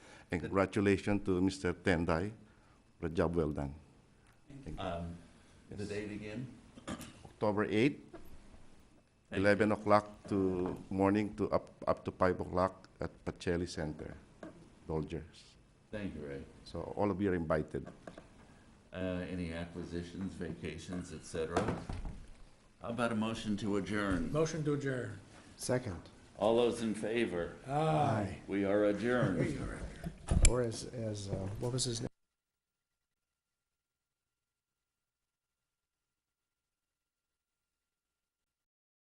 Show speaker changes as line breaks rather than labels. And congratulations to Mr. Tendai for a job well done.
Um, The date again?
October 8,
Thank you.
11 o'clock to morning to up, up to 5 o'clock at Pacelli Center, Dolgers.
Thank you, Ray.
So all of you are invited.
Uh, Any acquisitions, vacations, et cetera? How about a motion to adjourn?
Motion to adjourn. Ah.
Second,
All those in favor?
Aye.
We are adjourned.
or as, as, uh, what was his name?